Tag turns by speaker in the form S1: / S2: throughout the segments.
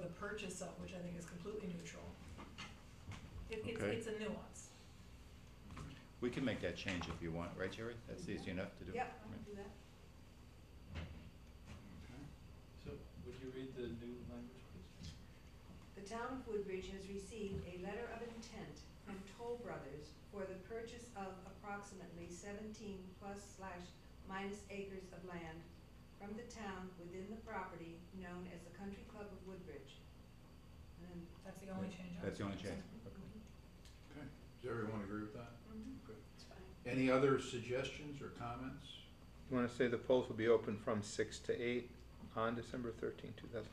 S1: the purchase of, which I think is completely neutral. It, it's,
S2: Okay.
S1: it's a nuance.
S2: We can make that change if you want, right, Jerry? That's easy enough to do.
S1: Yep, I
S2: Right.
S1: can do that.
S3: So would you read the new language, please?
S4: The town of Woodbridge has received a letter of intent from Toll Brothers for the purchase of approximately seventeen plus slash minus acres of land from the town within the property known as the Country Club of Woodbridge. And then
S1: That's the only change. I
S2: That's the
S1: would
S2: only
S1: make.
S2: change.
S5: Okay, does everyone agree with that?
S4: it's fine.
S5: Any other suggestions or comments?
S6: You want to say the polls will be open from six to eight on December thirteenth, two thousand?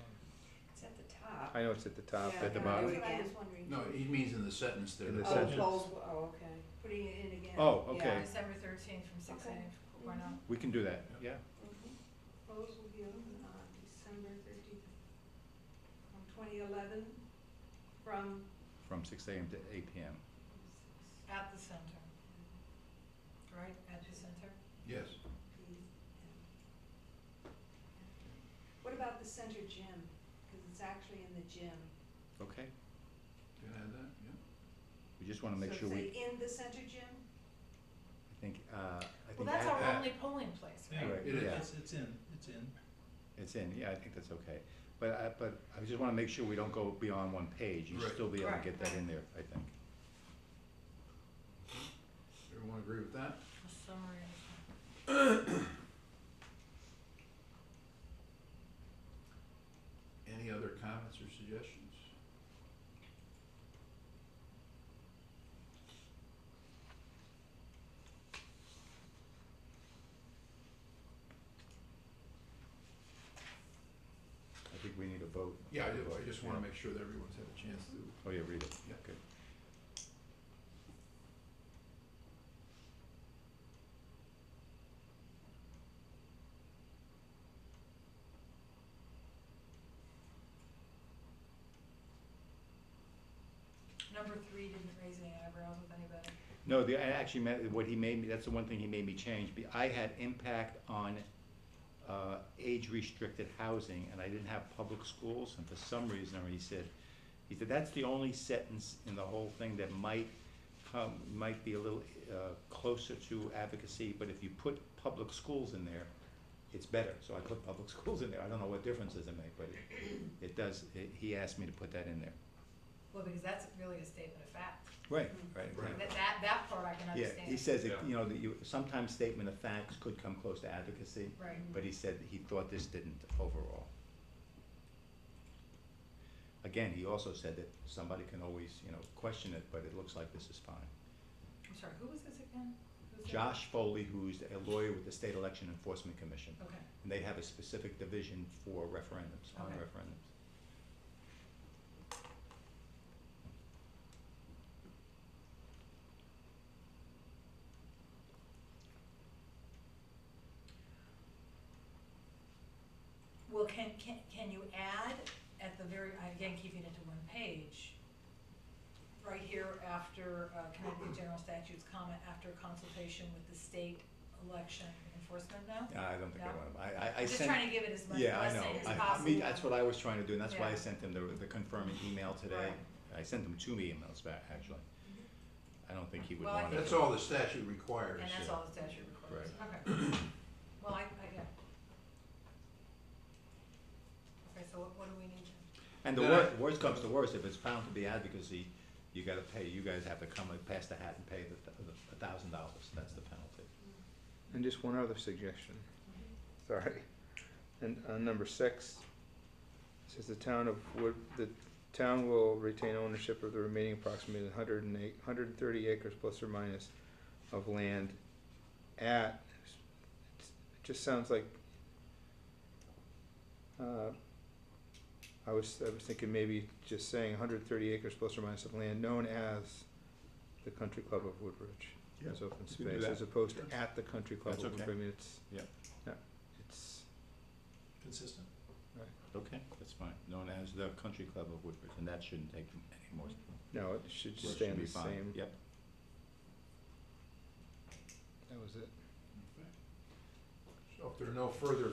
S4: It's at the top.
S6: I know it's at the top.
S7: Yeah,
S2: At the
S7: no,
S2: bottom.
S7: do it
S4: That's what I
S7: again.
S4: was wondering,
S5: No, he means in the sentence there.
S6: In the
S5: that-
S7: Oh,
S6: sentence.
S7: bold, oh, okay.
S4: putting it in again.
S2: Oh,
S7: Yeah,
S2: okay,
S1: December thirteenth from six
S4: Okay.
S1: a.m. Why not?
S2: we can do that, yeah.
S4: Polls will be open on uh, December thirteenth, from twenty eleven, from
S2: From six AM to eight PM.
S1: At the center, right, at the center?
S5: Yes,
S4: What about the center gym? Because it's actually in the gym.
S2: Okay,
S5: can I add that? Yeah.
S2: we just wanna make sure
S4: So
S2: we,
S4: say in the center gym?
S2: I think, uh, I
S1: Well,
S2: think
S1: that's
S2: add
S1: our
S2: that.
S1: only polling place,
S2: Yeah.
S1: right?
S2: Right, It is.
S3: It's, it's in, it's in.
S2: It's in, yeah, I think that's okay. But I, but I just wanna make sure we don't go beyond one page. You should
S5: Right.
S2: still be able to
S1: Right,
S2: get that
S1: right.
S2: in there, I think.
S5: Everyone agree with that?
S1: A summary of-
S5: Any other comments or suggestions?
S2: I think we need a vote.
S5: Yeah, I do, I just wanna make sure that everyone's had a chance to.
S2: Oh, yeah, read it.
S5: Yeah.
S2: Good.
S1: Number three didn't raise any eyebrows with anybody.
S2: No, the, I actually meant, what he made me, that's the one thing he made me change. Be- I had impact on, uh, age-restricted housing, and I didn't have public schools, and for some reason, or he said, he said, that's the only sentence in the whole thing that might come, might be a little, uh, closer to advocacy, but if you put public schools in there, it's better. So I put public schools in there. I don't know what difference does it make, but it, it does, it, he asked me to put that in there.
S1: Well, because that's really a statement of fact.
S2: Right, right,
S5: Right.
S2: exactly.
S1: That, that, that part I can
S2: Yeah,
S1: understand.
S2: he says, that,
S5: Yeah.
S2: you know, that you, sometimes statement of facts could come close to advocacy,
S1: Right.
S2: but he said that he thought this didn't overall. Again, he also said that somebody can always, you know, question it, but it looks like this is fine.
S1: I'm sorry, who was this again? Who's that?
S2: Josh Foley, who's a lawyer with the State Election Enforcement Commission,
S1: Okay,
S2: and they have a specific division for referendums, on
S1: Okay.
S2: referendums.
S1: well, can, can, can you add at the very, again, keeping it to one page, right here after uh, Connecticut General Statutes, comma, after consultation with the state election enforcement now?
S2: I don't think I
S1: Yeah.
S2: want to, I, I, I
S1: I'm Just
S2: sent.
S1: trying to give it as much
S2: Yeah, I know.
S1: blessing as
S2: I-
S1: possible.
S2: I mean, that's what I was trying to do, and that's why I
S1: Yeah.
S2: sent them the, the confirming email
S1: Right.
S2: today.
S1: Mm-hmm.
S2: I sent them two emails back, actually. I don't think he would
S1: Well, I
S2: want it.
S5: That's all the statute requires.
S1: And that's all the statute requires, okay. Well, I, I, yeah. Okay, so what, what do we need to?
S2: And the
S5: Then
S2: wor-
S5: I-
S2: worst comes to worst, if it's found to be advocacy, you gotta pay, you guys have to come and pass the hat and pay the, th- the, a thousand dollars, that's the penalty.
S6: And just one other suggestion, sorry. And on number six, it says the town of Wood, the town will retain ownership of the remaining approximately hundred and eight, hundred and thirty acres plus or minus of land at, it just sounds like, uh, I was, I was thinking maybe just saying hundred and thirty acres plus or minus of land known as the Country Club of Woodbridge as open
S2: you can do
S6: space,
S2: that.
S6: as opposed
S5: Sure.
S6: to at the country club.
S2: That's
S6: open
S2: okay.
S6: space. I mean, it's.
S2: Yeah.
S6: yeah, it's,
S3: Consistent.
S2: Okay, that's fine, known as the Country Club of Woodbridge, and that shouldn't take any more.
S6: no, it should
S2: Should
S6: just stay in
S2: be
S6: the
S2: fine.
S6: same,
S2: Yep,
S6: that was it.
S5: Okay. So if there are no further